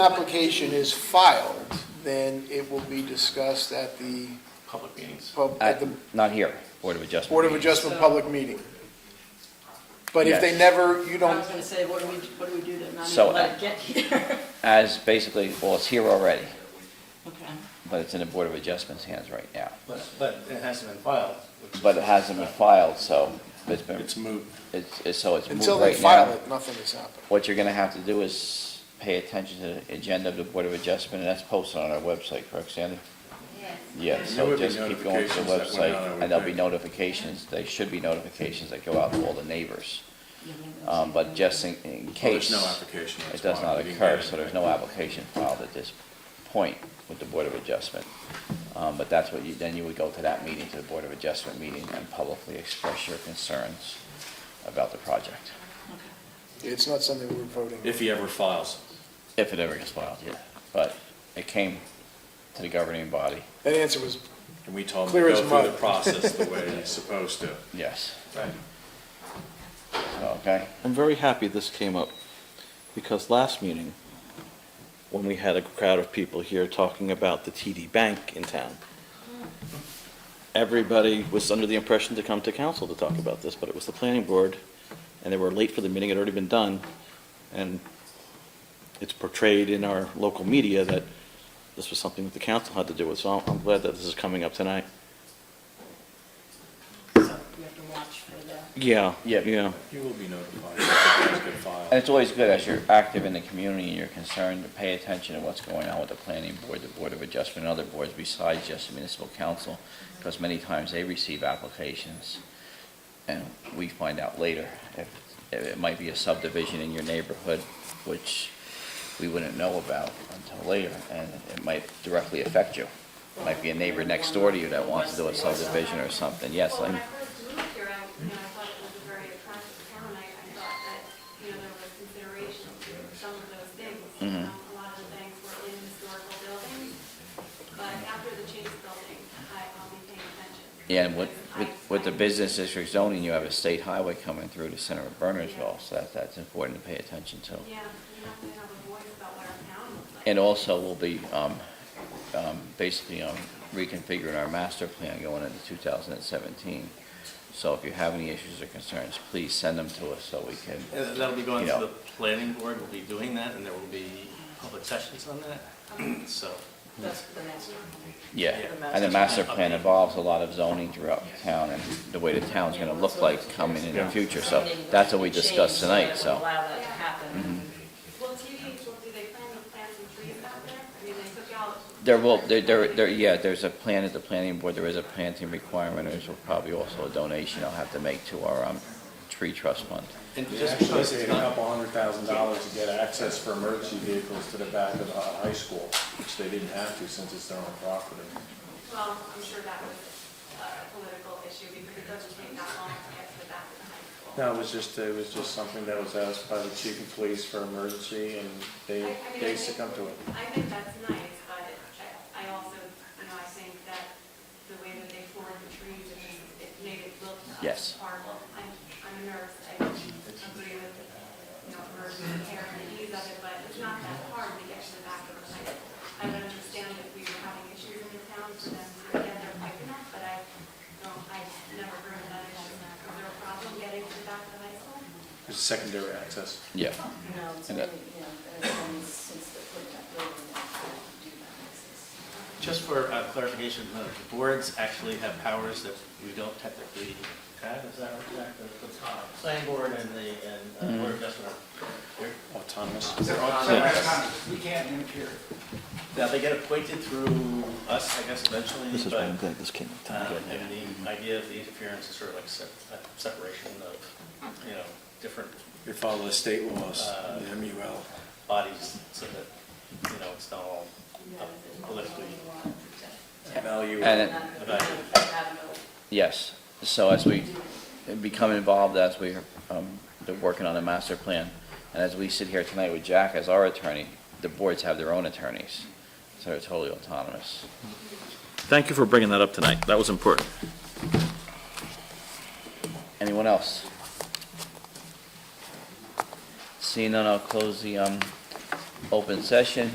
application is filed, then it will be discussed at the, public meetings. pub- Uh, at the Not here, Board of Adjustment. Board of meeting. Adjustment public meeting. But if they Yes. never, you I don't, was gonna say, what do we, what do we do to not So, even let uh, it get here? As basically, well, it's here already, Okay. but it's in the Board of Adjustment's hands right now. But, but it hasn't been filed. which is- But it hasn't been filed, so it's been, It's moot. it's, it's- so it's moved until they right file now. it, nothing is happening. What you're gonna have to do is pay attention to the agenda of the Board of Adjustment, and that's posted on our website, correct, Sandy? Yeah, There so would be just keep going to the notifications that went out, I website, would and there'll be think. notifications, there should be notifications that go out to all the neighbors. Yeah, yeah, Um, but that's- just in, in Well, there's case. no application. It that's does filed. not We didn't occur, get so it. there's no application filed at this point with the Board of Adjustment. Um, But that's what you, then you would go to that meeting, to the Board of Adjustment meeting, and publicly express your concerns about the project, It's not something we're voting. on. If he ever files. if it ever gets filed, yeah. But it came to the governing body, That answer was, And we told him Clear to as go through mud. the process the way he's supposed to. yes, Right. okay? I'm very happy this came up, because last meeting, when we had a crowd of people here talking about the TD Bank in town, everybody was under the impression to come to council to talk about this, but it was the planning board, and they were late for the meeting, it had already been done, and it's portrayed in our local media that this was something that the council had to do with, so I'm- I'm glad that this is coming up tonight. So we have to watch for the. Yeah. Yep. Yeah. You will be notified if he does get And filed. it's always good as you're active in the community and you're concerned to pay attention to what's going on with the planning board, the board of adjustment, and other boards besides just the municipal council, because many times they receive applications, and we find out later if, if it might be a subdivision in your neighborhood, which we wouldn't know about until later, and it might directly affect you. Might be a neighbor next door to you that wants to do a subdivision or something, yes, Well, I'm, when I first moved here, I, you know, I thought it was a very attractive town, I, I thought that, you know, there was consideration to some of those things. Mhm. Um, A lot of the things were in historical buildings, but after the Chase building, I, um, I'll be paying attention. Yeah, and with, with- Because I- with the business district zoning, you have a state highway coming through the center of Bernardsville, so that, that's important to pay attention to. Yeah, you have to have a voice about what our town looks like. And also, we'll be, um, um, basically, um, reconfiguring our master plan going into two thousand and seventeen. So if you have any issues or concerns, please send them to us so we can, And That'll be going to Yeah. the planning board, we'll be doing that, and there will be public sessions on that, so. That's the next one. yeah. Yeah. And the master plan involves a lot of zoning throughout the town and the way the town's gonna look like coming in the future, so that's what we discussed tonight, so. Mm-hmm. Allow that to happen. Well, TVs, well, do they plan to plant some trees out there? I mean, they took out. There will, there, there, there- yeah, there's a plan at the planning board, there is a planting requirement, there's probably also a donation I'll have to make to our, um, tree trust fund. And You just actually because it's paid a not, couple hundred thousand dollars to get access for emergency vehicles to the back of the high school, which they didn't have to since it's their own property. Well, I'm sure that was uh, a political issue because it doesn't take that long to get to the back of the high school. No, it was just, it was just something that was asked by the chief of police for emergency and I- I they, mean, I they think- succumbed to it. I think that's nice, but I- I also, you know, I think that the way that they formed the trees, it just, it made it look Yes. horrible. I'm, I'm a nurse, I don't agree with, you know, emergency care and the ease of it, but it's not that hard to get to the back of the high school. I would understand if we were having issues in the town for them to get their pipe enough, but I don't, I never heard of that issue. Is there a problem getting to the back of the high school? It's secondary access. Yeah, No, it's And that- really, you know, it's only since they put that building up, they do that exist. just for uh, clarification, uh, the boards actually have powers that we don't technically have, is that correct? The- The uh, planning board and the, and uh, Mm-hmm. board of adjustment, are- they're Autonomous. We can't interfere. Now, they get appointed through us, I guess, eventually, This is why I'm but, glad this came up uh, tonight. and the idea of the interference is sort of like sep- a separation of, you know, different You follow the state laws, Uh, the MUL. bodies so that, you know, it's not all uh, politically Value. and, it- evaluated. yes, so as we become involved, as we, um, they're working on a master plan, and as we sit here tonight with Jack as our attorney, the boards have their own attorneys, so they're totally autonomous. Thank you for bringing that up tonight, that was important. Anyone else? Seeing none, I'll close the, um, open session.